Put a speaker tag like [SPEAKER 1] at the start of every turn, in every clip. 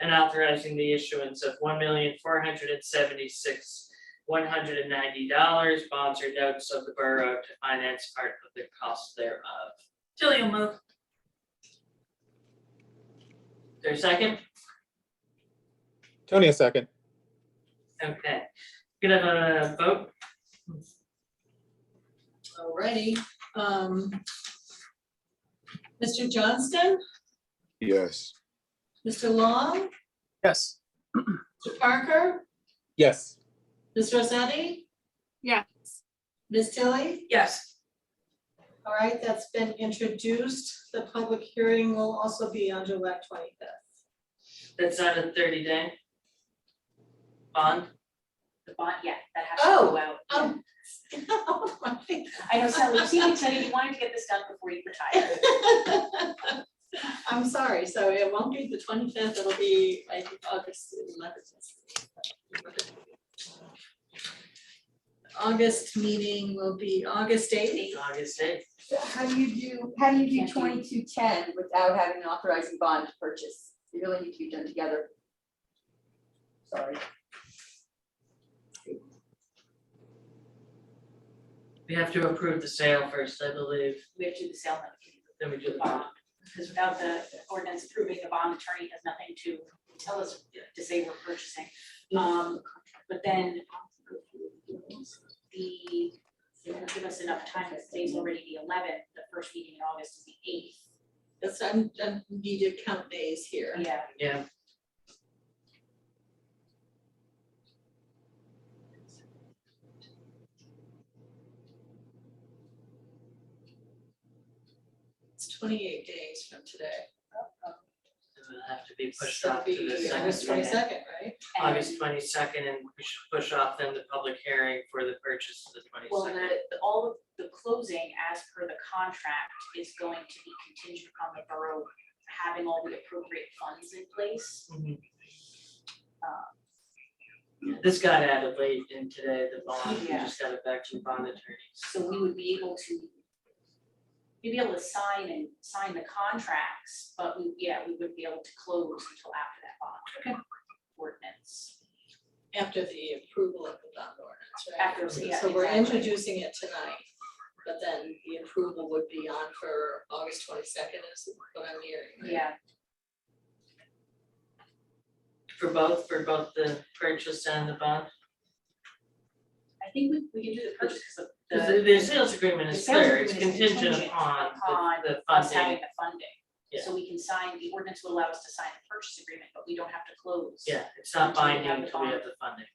[SPEAKER 1] and authorizing the issuance of one million four hundred and seventy-six one hundred and ninety dollars bonds or notes of the borough to finance part of the cost thereof.
[SPEAKER 2] Tilly will move.
[SPEAKER 1] Is there a second?
[SPEAKER 3] Tony, a second.
[SPEAKER 1] Okay, could I have a vote?
[SPEAKER 4] Alrighty, um. Mr. Johnston,
[SPEAKER 5] yes,
[SPEAKER 4] Mr. Long,
[SPEAKER 3] Yes.
[SPEAKER 4] Mr. Parker,
[SPEAKER 3] Yes.
[SPEAKER 4] Ms. Rosetti?
[SPEAKER 6] Yes.
[SPEAKER 4] Ms. Tilly?
[SPEAKER 2] Yes.
[SPEAKER 4] All right, that's been introduced. The public hearing will also be on July twenty-fifth.
[SPEAKER 1] That's not a thirty day? Bond?
[SPEAKER 7] the bond, yeah, that has to go out.
[SPEAKER 4] Um, oh my
[SPEAKER 7] I know Sally, you seem excited, you wanted to get this done before you retire.
[SPEAKER 4] I'm sorry, so it won't be the twenty-fifth, it'll be like August eleventh. August meeting will be August eighth.
[SPEAKER 1] August eighth.
[SPEAKER 8] So How do you do, how do you do
[SPEAKER 7] Can't
[SPEAKER 8] twenty-two ten without having an authorizing bond to purchase? They really need to be done together. Sorry.
[SPEAKER 1] We have to approve the sale first, I believe,
[SPEAKER 7] We have to do the sale notification,
[SPEAKER 1] then we do
[SPEAKER 7] the
[SPEAKER 1] the
[SPEAKER 7] bond,
[SPEAKER 1] bond.
[SPEAKER 7] because without the ordinance approving, the bond attorney has nothing to tell us to say we're purchasing. Um, but then the, it'll give us enough time, because today's already the eleventh, the first meeting in August is the eighth.
[SPEAKER 4] That's, I'm, I need to count days here.
[SPEAKER 7] Yeah,
[SPEAKER 1] Yeah,
[SPEAKER 4] It's twenty-eight days from today.
[SPEAKER 1] it will have to be Oh, pushed
[SPEAKER 4] Should
[SPEAKER 1] off to the
[SPEAKER 4] be
[SPEAKER 1] second.
[SPEAKER 4] August twenty-second, right?
[SPEAKER 7] and
[SPEAKER 1] August twenty second, and we should push off then the public hearing for the purchase of the twenty
[SPEAKER 7] Well,
[SPEAKER 1] second.
[SPEAKER 7] the, the- all of the closing as per the contract is going to be contingent upon the borough having all the appropriate funds in place. Um,
[SPEAKER 1] This got added late in today, the bond, we
[SPEAKER 7] Yeah.
[SPEAKER 1] just got it back from bond attorneys.
[SPEAKER 7] So we would be able to, we'd be able to sign and sign the contracts, but we, yeah, we wouldn't be able to close until after that bond. Ordinance.
[SPEAKER 4] After the approval of the bond ordinance, right?
[SPEAKER 7] After, yeah,
[SPEAKER 4] So we're
[SPEAKER 7] exactly.
[SPEAKER 4] introducing it tonight, but then the approval would be on for August twenty-second is what I'm hearing. right?
[SPEAKER 7] Yeah,
[SPEAKER 1] For both, for both the purchase and the bond,
[SPEAKER 7] I think we, we can do the purchase because of
[SPEAKER 1] because
[SPEAKER 7] the,
[SPEAKER 1] the, the sales agreement
[SPEAKER 7] the
[SPEAKER 1] is
[SPEAKER 7] sales
[SPEAKER 1] clear, it's
[SPEAKER 7] agreement is
[SPEAKER 1] contingent
[SPEAKER 7] contingent
[SPEAKER 1] upon
[SPEAKER 7] upon
[SPEAKER 1] the, the
[SPEAKER 7] us
[SPEAKER 1] funding,
[SPEAKER 7] having the funding. So we can sign, the ordinance would allow us to sign the purchase agreement, but we don't have to close.
[SPEAKER 1] yeah, it's not
[SPEAKER 7] Until we have
[SPEAKER 1] binding
[SPEAKER 7] the
[SPEAKER 1] until we have
[SPEAKER 7] bond.
[SPEAKER 1] the funding.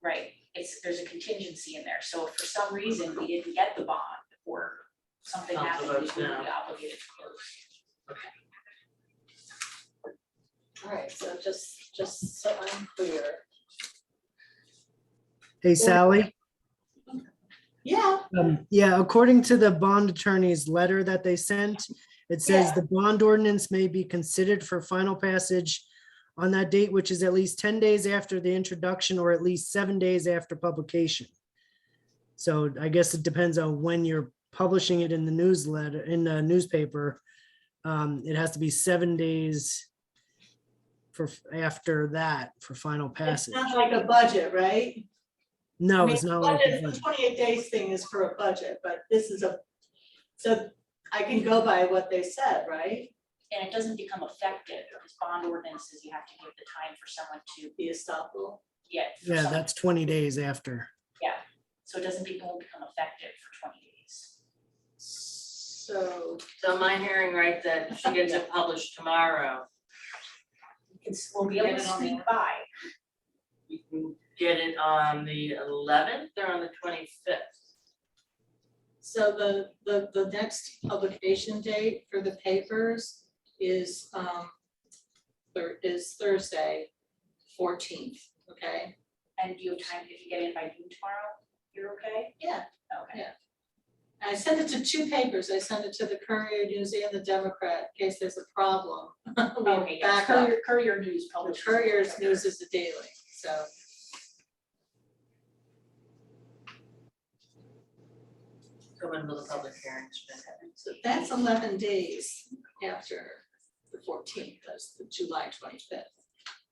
[SPEAKER 7] Right, it's, there's a contingency in there, so if for some reason we didn't get the bond or something
[SPEAKER 1] Council
[SPEAKER 7] happened, we would
[SPEAKER 1] votes
[SPEAKER 7] be
[SPEAKER 1] no.
[SPEAKER 7] obligated to close.
[SPEAKER 4] All right, so just, just so I'm clear.
[SPEAKER 9] Hey Sally,
[SPEAKER 4] Yeah,
[SPEAKER 9] um, yeah, according to the bond attorney's letter that they sent, it says
[SPEAKER 4] Yeah.
[SPEAKER 9] the bond ordinance may be considered for final passage on that date, which is at least ten days after the introduction or at least seven days after publication. So I guess it depends on when you're publishing it in the newsletter, in the newspaper. Um, it has to be seven days for, after that for final
[SPEAKER 4] it's
[SPEAKER 9] passage.
[SPEAKER 4] not like a budget, right? I
[SPEAKER 9] No,
[SPEAKER 4] mean,
[SPEAKER 9] it's not like. a
[SPEAKER 4] budget,
[SPEAKER 9] budget.
[SPEAKER 4] the twenty-eight days thing is for a budget, but this is a, so I can go by what they said, right?
[SPEAKER 7] And it doesn't become effective, because bond ordinances, you have to give the time for someone to
[SPEAKER 4] The estoppel.
[SPEAKER 7] get. for
[SPEAKER 9] Yeah,
[SPEAKER 7] someone-
[SPEAKER 9] that's twenty days after.
[SPEAKER 7] So it doesn't become, become effective for twenty days.
[SPEAKER 4] So
[SPEAKER 1] So am I hearing right that she gets it published tomorrow,
[SPEAKER 7] It's, we'll be able to
[SPEAKER 1] Get it on
[SPEAKER 7] sneak by,
[SPEAKER 1] we can get it on the eleventh or on the twenty fifth?
[SPEAKER 4] So the, the, the next publication date for the papers is, um, Thur- is Thursday, fourteenth, okay?
[SPEAKER 7] and do you have time, if you get in by noon tomorrow, you're okay?
[SPEAKER 4] Yeah.
[SPEAKER 7] Okay,
[SPEAKER 4] And I sent it to two papers, I sent it to the Courier News and the Democrat, in case there's a problem. We have
[SPEAKER 7] okay, yes,
[SPEAKER 4] backup.
[SPEAKER 7] courier, courier news
[SPEAKER 4] The
[SPEAKER 7] publishes.
[SPEAKER 4] Courier's News is the daily, so.
[SPEAKER 1] Come in with a public hearing, it's been-
[SPEAKER 4] So that's eleven days after the fourteenth, that's the July twenty-fifth.